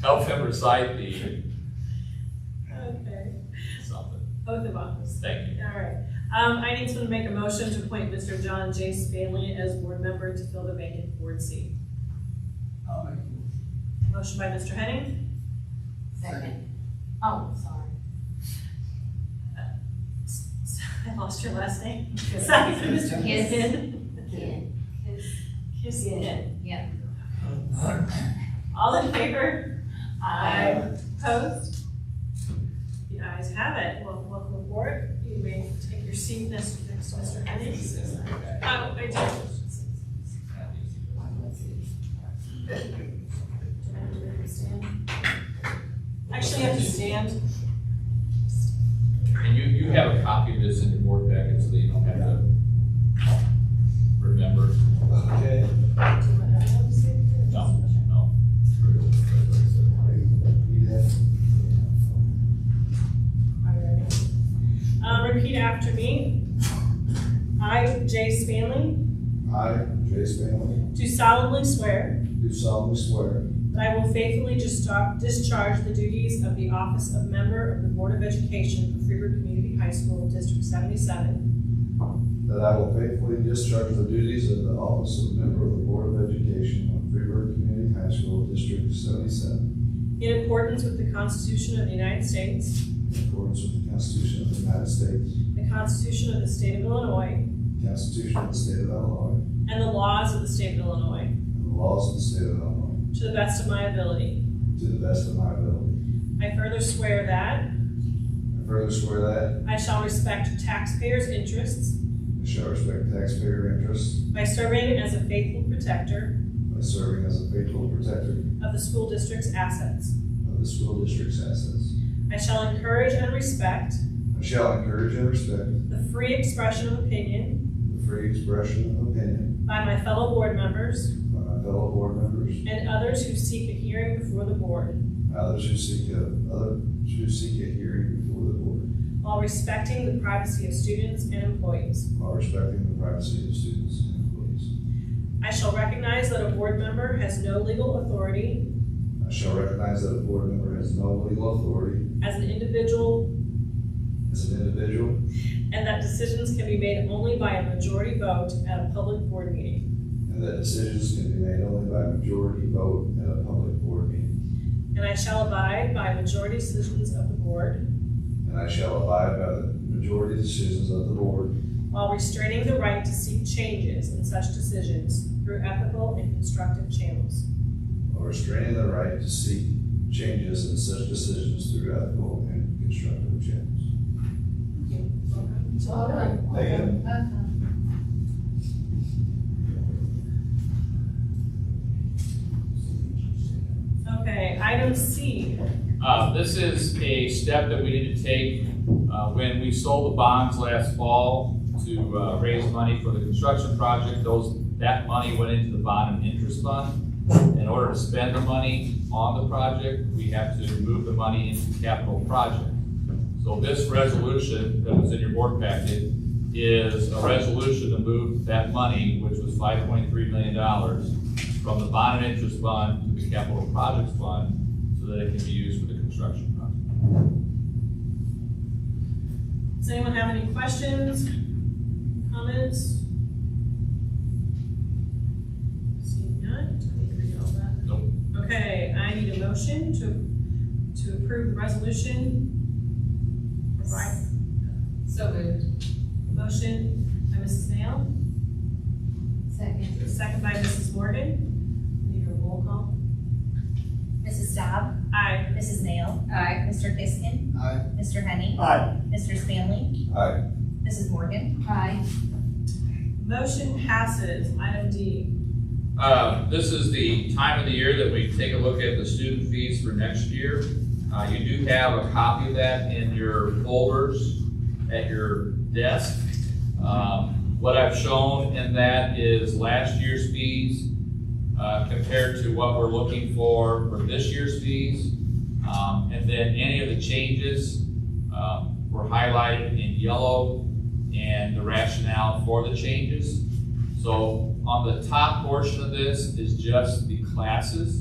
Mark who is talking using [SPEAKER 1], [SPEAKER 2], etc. [SPEAKER 1] help him recite the
[SPEAKER 2] Okay,
[SPEAKER 1] something.
[SPEAKER 2] oath of office.
[SPEAKER 1] Thank you.
[SPEAKER 2] All right. Um, I need to make a motion to appoint Mr. John J. Spanley as board member to fill the vacant board seat.
[SPEAKER 3] I'll make the motion.
[SPEAKER 2] Motion by Mr. Henning,
[SPEAKER 4] Second. Oh, sorry.
[SPEAKER 2] Uh, I lost your last name. Second by Mr.
[SPEAKER 4] Yes.
[SPEAKER 2] Kissin.
[SPEAKER 4] Kid.
[SPEAKER 2] Kissin.
[SPEAKER 4] Yeah.
[SPEAKER 2] All in favor? Opposed? The ayes have it. Well, welcome aboard. You may take your seat next to Mr. Henning. Oh, I do. Actually, you have to stand.
[SPEAKER 1] And you, you have a copy of this in your board packet so that you don't have to remember.
[SPEAKER 3] Okay.
[SPEAKER 1] No, no.
[SPEAKER 2] Uh, repeat after me. I, Jay Spanley,
[SPEAKER 3] I, Jay Stanley,
[SPEAKER 2] do solemnly swear
[SPEAKER 3] do solemnly swear
[SPEAKER 2] that I will faithfully distar- discharge the duties of the office of member of the Board of Education for Freeburg Community High School, District seventy-seven,
[SPEAKER 3] that I will faithfully discharge the duties of the office of member of the Board of Education of Freeburg Community High School District seventy-seven
[SPEAKER 2] in accordance with the Constitution of the United States,
[SPEAKER 3] in accordance with the Constitution of the United States,
[SPEAKER 2] the Constitution of the State of Illinois,
[SPEAKER 3] the Constitution of the State of Illinois,
[SPEAKER 2] and the laws of the State of Illinois,
[SPEAKER 3] and the laws of the State of Illinois,
[SPEAKER 2] to the best of my ability.
[SPEAKER 3] to the best of my ability.
[SPEAKER 2] I further swear that
[SPEAKER 3] I further swear that
[SPEAKER 2] I shall respect taxpayers' interests
[SPEAKER 3] I shall respect taxpayer interests
[SPEAKER 2] by serving as a faithful protector
[SPEAKER 3] by serving as a faithful protector
[SPEAKER 2] of the school district's assets.
[SPEAKER 3] of the school district's assets.
[SPEAKER 2] I shall encourage and respect
[SPEAKER 3] I shall encourage and respect
[SPEAKER 2] the free expression of opinion
[SPEAKER 3] the free expression of opinion
[SPEAKER 2] by my fellow board members
[SPEAKER 3] by my fellow board members,
[SPEAKER 2] and others who seek a hearing before the board
[SPEAKER 3] others who seek a, others who seek a hearing before the board,
[SPEAKER 2] while respecting the privacy of students and employees.
[SPEAKER 3] while respecting the privacy of students and employees.
[SPEAKER 2] I shall recognize that a board member has no legal authority
[SPEAKER 3] I shall recognize that a board member has no legal authority
[SPEAKER 2] as an individual
[SPEAKER 3] as an individual,
[SPEAKER 2] and that decisions can be made only by a majority vote at a public board meeting.
[SPEAKER 3] and that decisions can be made only by majority vote at a public board meeting.
[SPEAKER 2] And I shall abide by majority decisions of the board
[SPEAKER 3] And I shall abide by the majority decisions of the board
[SPEAKER 2] while restraining the right to seek changes in such decisions through ethical and constructive channels.
[SPEAKER 3] while restraining the right to seek changes in such decisions through ethical and constructive channels. Thank
[SPEAKER 2] Okay, item C,
[SPEAKER 1] Uh, this is a step that we need to take, uh, when we sold the bonds last fall to, uh, raise money for the construction project, those, that money went into the bond and interest fund. In order to spend the money on the project, we have to move the money into capital project. So this resolution that was in your board packet is a resolution to move that money, which was five point three million dollars, from the bond and interest fund to the capital projects fund, so that it can be used for the construction project.
[SPEAKER 2] does anyone have any questions, comments? Seeing none, do we read all that?
[SPEAKER 1] Nope.
[SPEAKER 2] Okay, I need a motion to, to approve the resolution. Provide,
[SPEAKER 4] So moved.
[SPEAKER 2] motion by Mrs. Nail,
[SPEAKER 4] Second.
[SPEAKER 2] second by Mrs. Morgan. Need a roll call?
[SPEAKER 5] Mrs. Staub,
[SPEAKER 2] Aye.
[SPEAKER 5] Mrs. Nail,
[SPEAKER 4] Aye.
[SPEAKER 5] Mr. Kiskin,
[SPEAKER 3] Aye.
[SPEAKER 5] Mr. Henning,
[SPEAKER 3] Aye.
[SPEAKER 5] Mr. Stanley,
[SPEAKER 3] Aye.
[SPEAKER 5] Mrs. Morgan,
[SPEAKER 4] Aye.
[SPEAKER 2] Motion passes, item D.
[SPEAKER 1] Uh, this is the time of the year that we take a look at the student fees for next year. Uh, you do have a copy of that in your folders at your desk. Um, what I've shown in that is last year's fees, uh, compared to what we're looking for for this year's fees. Um, and then any of the changes, uh, were highlighted in yellow and the rationale for the changes. So on the top portion of this is just the classes.